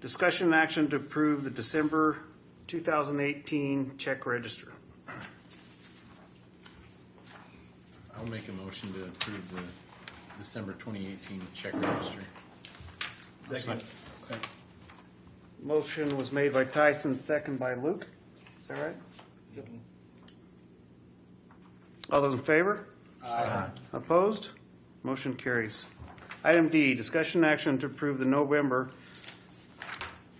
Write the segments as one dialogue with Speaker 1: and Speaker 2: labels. Speaker 1: Discussion and action to approve the December 2018 check register.
Speaker 2: I'll make a motion to approve the December 2018 check register. Second.
Speaker 1: Motion was made by Tyson, second by Luke. Is that right? All those in favor? Aye. Opposed? Motion carries. Item D, discussion and action to approve the November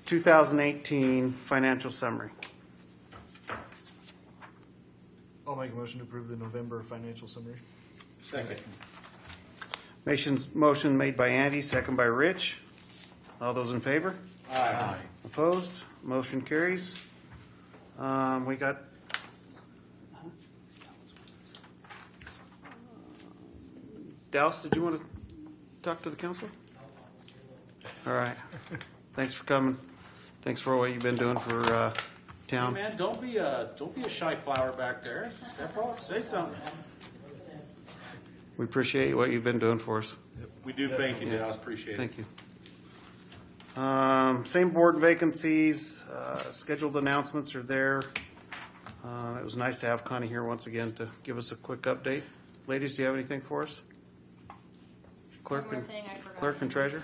Speaker 1: 2018 financial summary.
Speaker 3: I'll make a motion to approve the November financial summary.
Speaker 2: Second.
Speaker 1: Motion's, motion made by Andy, second by Rich. All those in favor?
Speaker 2: Aye.
Speaker 1: Opposed? Motion carries. Um, we got. Dallas, did you want to talk to the council? All right. Thanks for coming. Thanks for what you've been doing for, uh,
Speaker 4: Hey,
Speaker 1: town.
Speaker 4: man, don't be a don't be a shy flower back there. Step up, say something.
Speaker 1: We appreciate what you've been doing for us.
Speaker 4: We do thank you, Dallas. Appreciate it.
Speaker 1: Thank you. Um, Same board vacancies, uh, scheduled announcements are there. Uh, It was nice to have Connie here once again to give us a quick update. Ladies, do you have anything for us? Clerk
Speaker 5: One more
Speaker 1: and,
Speaker 5: thing I forgot.
Speaker 1: clerk and treasurer?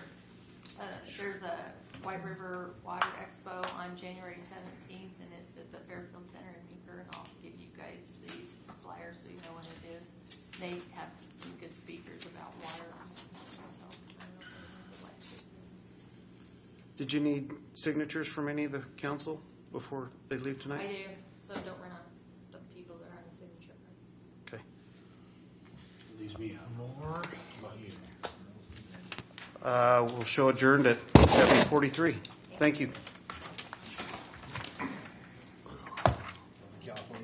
Speaker 5: Uh, There's a White River Water Expo on January seventeenth, and it's at the Fairfield Center in Meeker, and I'll give you guys these flyers so you know when it is. They have some good speakers about water. So, I don't know if you would
Speaker 1: Did you need signatures from any of the council before they leave
Speaker 5: like to- I
Speaker 1: tonight?
Speaker 5: do, so don't run out of people that are on the signature. card.
Speaker 1: Okay.
Speaker 2: Leaves me out. More. About you.
Speaker 1: Uh, We'll show adjourned at 7:43. Thank you.